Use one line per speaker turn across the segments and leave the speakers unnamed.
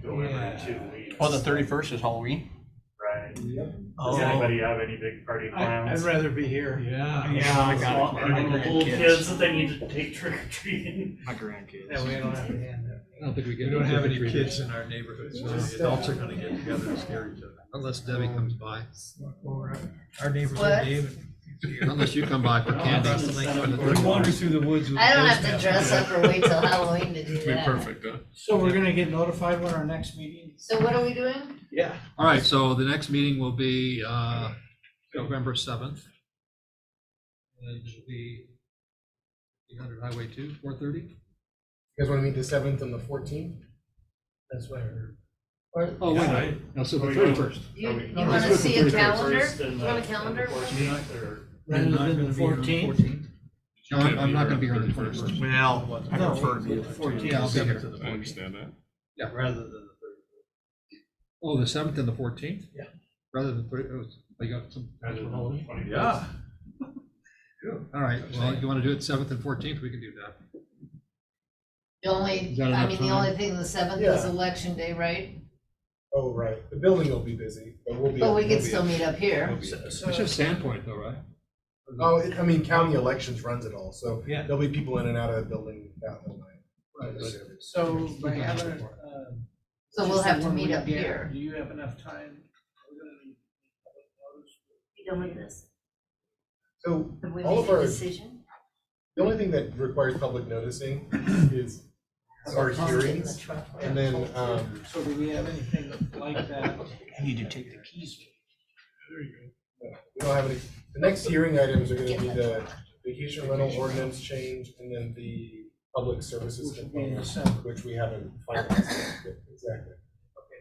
delivery
Yeah.
two weeks.
Oh, the thirty-first is Halloween?
Right.
Oh.
Does anybody have any big party plans?
rather be here.
Yeah.
Yeah, I got it.
Any little kids that they need to take trick or treating?
My grandkids.
That way I don't have to hand it.
I don't think we
We
get.
don't have any
trick-or-treaters.
kids in our neighborhood, so the adults are gonna get together and scare each other.
Unless Debbie comes by,
Our neighbors
What?
are David.
unless you come by for candy.
Across the lake from the-
That'd
We wander through the woods with.
I don't
a
have to
ghost
dress
mask.
up or wait till Halloween to do
Be
that.
perfect, huh?
So we're gonna get notified when our next meeting?
So what are we doing?
Yeah.
All right, so the next meeting will be, uh, November seventh. And it'll be eight hundred Highway two, four thirty?
You guys want to meet the seventh and the fourteenth?
That's what I heard.
Or
Oh, wait,
Yeah,
no, no, so the
Are we-
thirty-first.
you,
Are we-
you
are we
wanna
looking for
see a
the
calendar?
31st and
You want a
the- and the
calendar?
14th, or-
Rather than the fourteenth?
No, I'm I'm not gonna be here on the twenty-first.
Well, I
No,
prefer to be.
the
on the
14th.
Yeah, I'll be here.
Seventh to the
I
fourteenth.
understand that.
Yeah, rather than the
Oh, the seventh and the fourteenth?
Yeah.
Rather than, thirty- oh, I got some.
Rather than the
All
21st.
Yeah.
right, well, you wanna do it seventh and fourteenth, we can do that.
The only,
Is that
I
enough
mean, the
time?
only thing, the seventh is
Yeah.
election day, right?
Oh, right. The building will be busy, but we'll be.
But we
we'll
can
be-
still meet up here.
So-
It's just Sandpoint though, right?
Oh, it- I mean, county elections runs it all, so
Yeah.
there'll be people in and out of the building that whole night.
Right, but-
So by having, it, uh.
So we'll
just
have to
one
meet
week
up
gap,
here.
Do you have enough time? We're gonna need public notice.
You done with this?
So
Have we
all
made
of
a
our,
decision?
the only thing that requires public noticing is our hearings. And then, um,
So do we have anything like that?
I need to take the keys.
we don't have any, the next hearing items are gonna be the vacation rental ordinance change and then the public services
Which would be in
component,
December.
which we haven't finalized. yet. Exactly.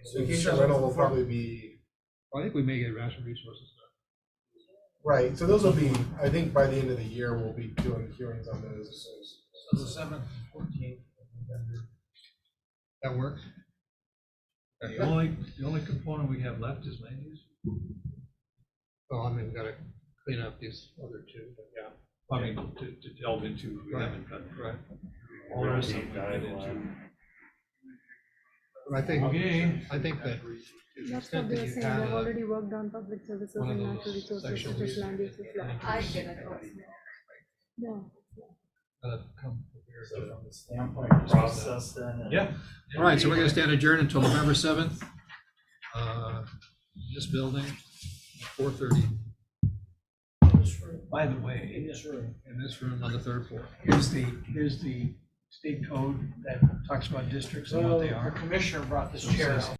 So
Okay,
vacation rental will probably be
I think we may get rational resources.
Right, so those will be, I think by the end of the year, we'll be doing hearings on those.
So the seventh, fourteenth.
That work?
The only, the only component we have left is land use.
Well, I mean, we gotta clean up these other two, but yeah.
I mean, to, to delve into, we
Right.
haven't done.
Right.
All
We're
of
on
us
deep
have
dive
been into.
But I think,
Okay.
I think that. to the
That's
extent
what they
that
were
you
saying,
have
they've already worked on public services
one of
and
those
natural resources
sections
such as land use.
that land
I
use
get it.
Yeah.
gotta come prepared.
So from the standpoint of process then. and-
Yeah.
All right, so we're gonna stand adjourned until November seventh, uh, this building, four thirty,
By the way.
In this room.
in this room on the third floor.
Here's the, here's the state code that talks about districts and what they are. Commissioner brought this chair out.